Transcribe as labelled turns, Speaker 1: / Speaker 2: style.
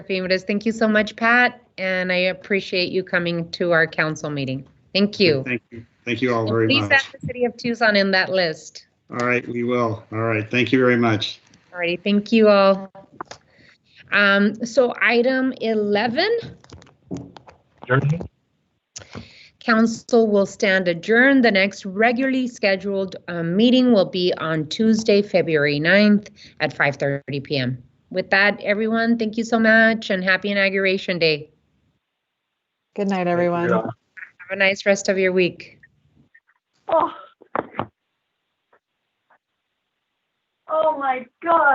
Speaker 1: Favorite. Thank you so much, Pat, and I appreciate you coming to our council meeting. Thank you.
Speaker 2: Thank you. Thank you all very
Speaker 1: Please add
Speaker 2: much.
Speaker 1: the city of Tucson in that list.
Speaker 2: All right, we will. All right, thank you very much.
Speaker 1: Alrighty, thank you all. Um, so item eleven,
Speaker 3: Adjourned.
Speaker 1: council will stand adjourned. The next regularly scheduled um, meeting will be on Tuesday, February 9th at five thirty PM. With that, everyone, thank you so much and happy inauguration day.
Speaker 4: Good night, everyone.
Speaker 1: Have a nice rest of your week.
Speaker 5: Oh. Oh my God.